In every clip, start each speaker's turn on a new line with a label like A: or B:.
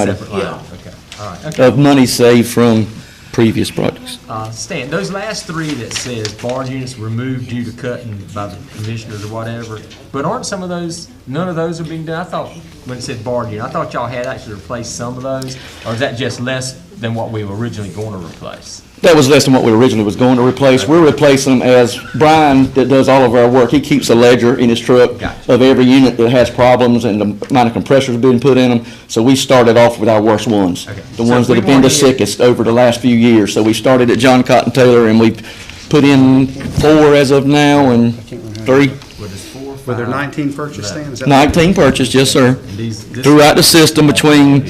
A: item
B: Separate
C: Yeah.
B: line, okay, all right, okay.
A: of money saved from previous projects.
B: Uh, Stan, those last three that says barge units removed due to cutting by the commissioners or whatever, but aren't some of those, none of those are being done? I thought, when it said barge unit, I thought y'all had actually replaced some of those, or is that just less than what we were originally going to replace?
A: That was less than what we originally was going to replace. We're replacing them as Brian, that does all of our work, he keeps a ledger in his truck
B: Gotcha.
A: of every unit that has problems and the amount of compressors being put in them. So we started off with our worst ones.
B: Okay.
A: The
B: So
A: ones
B: if
A: that
B: we
A: have been the
B: wanted-
A: sickest over the last few years. So we started at John Cotton Taylor and we put in four as of now and three,
B: Were there four, five?
C: Were there 19 purchase stands? Is that-
A: nineteen purchased, yes, sir.
B: These- this-
A: Throughout the system between,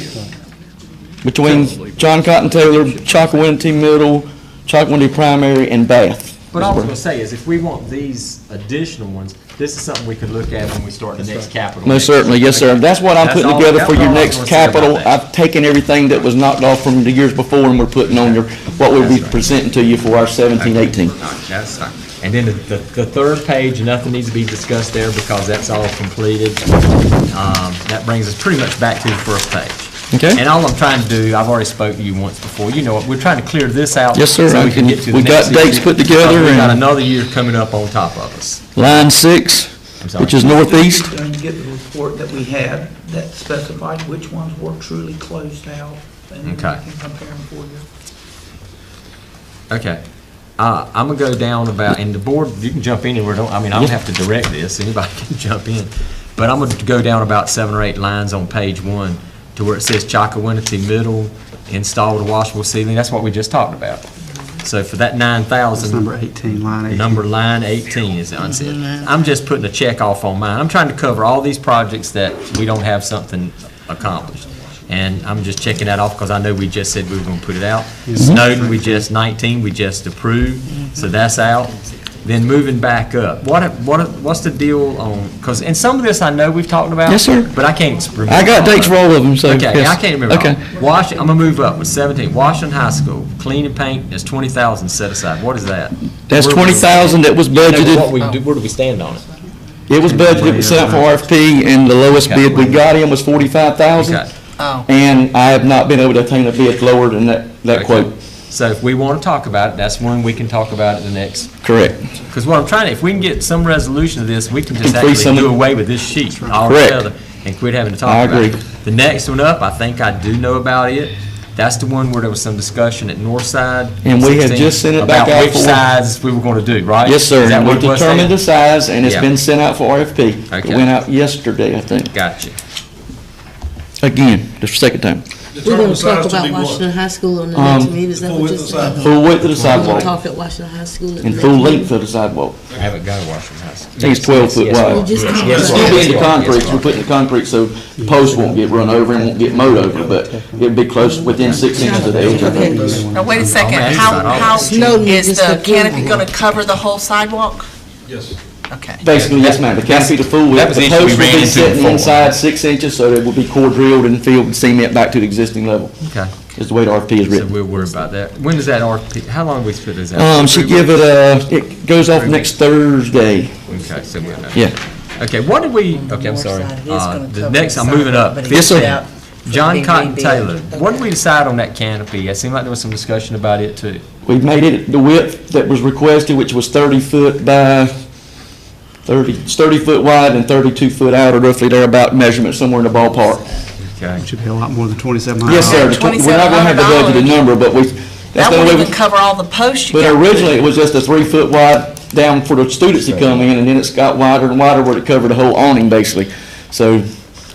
A: between John Cotton Taylor, Chakawinty Middle, Chakawinty Primary and Bath.
B: But I was gonna say is, if we want these additional ones, this is something we could look at when we start the next capital.
A: Most certainly, yes, sir. That's what I'm
B: That's
A: putting
B: all-
A: together for
B: that's
A: your
B: all I
A: next
B: was gonna say about
A: capital.
B: that.
A: I've taken everything that was knocked off from the years before, and we're putting on your, what we'll be presenting to you for our seventeen, eighteen.
B: All right, That's fine. And then the, the the third page, nothing needs to be discussed there because that's all completed. Um, That brings us pretty much back to the first page.
A: Okay.
B: And all I'm trying to do, I've already spoke to you once before, you know, it. we're trying to clear this out.
A: Yes, sir.
B: So
A: I
B: we can
A: can-
B: get to the
A: we got
B: next year.
A: dates put together
B: Because we got
A: and-
B: another year coming up on top of us.
A: Line six,
B: I'm sorry.
A: which is northeast.
D: You're going to get the report that we had that specified which ones were truly closed out, and then we
B: Okay.
D: can compare them for you.
B: Okay. Uh, I'm gonna go down about, and the board, you can jump anywhere, don't, I mean, I don't have to direct this, anybody can jump in. But I'm gonna go down about seven or eight lines on page one to where it says Chakawinity Middle installed a washable ceiling, that's what we just talked about. So for that nine
C: It's
B: thousand,
C: number 18, line 18.
B: number line eighteen is unsaid. I'm just putting a check off on mine, I'm trying to cover all these projects that we don't have something accomplished. And I'm just checking that off because I know we just said we were gonna put it out. Snowden, we just, 19, we just approved, so that's out. Then moving back up, what, what, what's the deal on, because, and some of this I know we've talked about.
A: Yes, sir.
B: But I can't remember.
A: I got dates for all of them, so.
B: Okay, I
A: yes.
B: can't remember.
A: Okay.
B: all. Wash, I'm gonna move up with 17, Washington High School, clean and paint is 20,000 set aside, what is that?
A: That's
B: Where do we-
A: twenty thousand that was budgeted.
B: What we, do- where do we stand on it?
A: It was budgeted, was sent for RFP, and the lowest bid we got in was forty-five thousand.
B: Okay.
A: And I have not been able to obtain a bid lower than that, that
B: Okay.
A: quote.
B: So if we want to talk about it, that's when we can talk about it the next,
A: Correct.
B: because what I'm trying to, if we can get some resolution to this, we can just
A: Complete
B: actually
A: some-
B: do away with this sheet
A: Correct.
B: altogether and quit having to
A: I
B: talk about it.
A: agree.
B: The next one up, I think I do know about it. That's the one where there was some discussion at Northside.
A: And we have
B: 16,
A: just sent it back out
B: About
A: for-
B: which sides we were going to do, right?
A: Yes, sir,
B: Is that
A: and we
B: what it was, Dan?
A: determined the size, and it's
B: Yeah.
A: been sent out for RFP.
B: Okay.
A: It went out yesterday, I think.
B: Gotcha.
A: Again, just the second time.
E: We're
F: Determine
E: gonna
F: the
E: talk
F: size to
E: about
F: be what?
E: Washington High School
A: Um,
E: on the next meeting, is that
F: full
E: what you're
F: width of the
E: saying?
A: Full width of the
E: We're gonna
A: sidewalk
E: talk at Washington High School at the
A: and
E: next
A: full length
E: meeting?
A: of the sidewalk.
B: I haven't got to Washington High School.
A: I think it's 12 foot
B: Yes,
A: wide.
B: yes,
E: We just talked
B: yes,
E: about
A: Still
B: yes,
A: be in the
B: yes,
A: concrete,
B: yes.
A: we're putting the concrete, so posts won't get run over and won't get mowed over, but it'd be close, within six inches of the edge, I think.
G: Now, wait a second,
B: I'm asking
G: how,
B: about all
G: how,
B: this.
E: Snowden
G: is
E: is
G: the
E: the
G: canopy
E: king.
G: gonna cover the whole sidewalk?
F: Yes.
G: Okay.
A: Basically, yes, ma'am, the canopy to full width,
B: That was
A: the
B: the issue we
A: posts will
B: ran
A: be
B: into
A: sitting
B: before.
A: inside six inches, so it will be core drilled and filled and cement back to the existing level,
B: Okay.
A: is the way the RFP is
B: So
A: written.
B: we'll worry about that. When is that RFP, how long we split this out?
A: Um, she
B: Three
A: give it a, it goes off next Thursday,
B: weeks? Okay, so we'll know.
A: yeah.
B: Okay, what did we, okay, I'm
G: north
B: sorry.
G: side, it is
B: Uh,
G: gonna
B: The
G: cover
B: next,
G: the
B: I'm moving
G: sidewalk,
B: up.
G: but it
A: Yes, sir.
G: is out for
B: John
G: being
B: Cotton
G: rebuilt.
B: Taylor, what did
G: Okay.
B: we decide on that canopy? It seemed like there was some discussion about it too.
A: We made it the width that was requested, which was thirty foot by thirty, it's thirty foot wide and thirty-two foot out, or roughly there about measurement, somewhere in the ballpark.
B: Okay.
C: Should be a lot more than 2,700.
A: Yes, sir, the tw- we're not gonna have the budgeted
G: $2,700.
A: number, but we, that's
G: That
A: the only
G: wouldn't
A: way,
G: even cover all the posts you
A: but
G: got.
A: originally, it was just a three foot wide down for the students to come in, and then it's got wider and wider where it covered the whole awning, basically. So,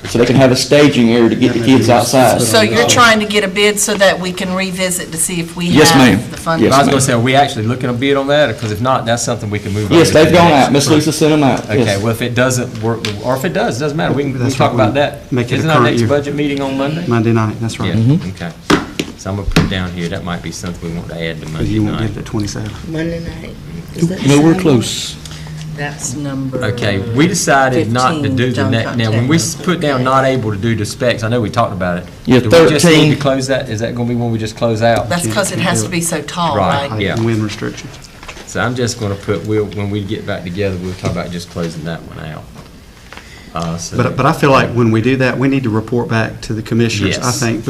A: so they can have a staging area to get the kids outside.
G: So you're trying to get a bid so that we can revisit to see if we
A: Yes, ma'am.
G: have the funding?
A: Yes,
B: I was
A: ma'am.
B: gonna say, are we actually looking a bid on that? Because if not, that's something we can move on.
A: Yes,
B: to the
A: they've gone
B: next
A: out, Miss
B: group.
A: Lisa sent them out,
B: Okay,
A: yes.
B: well, if it doesn't work, or if it does, doesn't matter. We can, we can
C: That's
B: talk
C: what we
B: about that.
C: make it a
B: Isn't our
C: current
B: next
C: year. Mm-hmm.
B: budget meeting on Monday?
C: Monday night, that's
B: Yeah,
C: right.
B: okay. So I'm gonna put down here, that might be something we want to add to
C: Because
B: Monday
C: you won't get it
B: night.
C: at 27.
E: Monday night. Is that the
A: No, we're
E: sidewalk?
A: close.
G: That's number.
B: Okay, we decided not to
G: 15,
B: do the
G: John
B: next,
G: Cotton
B: now, when we
G: Taylor.
B: s- put down not able to do the specs, I know we talked about it.
A: Yeah,
B: Do we just need
A: 13.
B: to close that, is that gonna be when we just close out?
G: That's because it has to be so tall,
B: Right.
G: right?
B: Yeah.
C: Height and wind restriction.
B: So I'm just gonna put, we'll, when we get back together, we'll talk about just closing that one out. Uh, so-
C: But, but I feel like when we do that, we need to report back to the commissioners. I
B: Yes.
C: think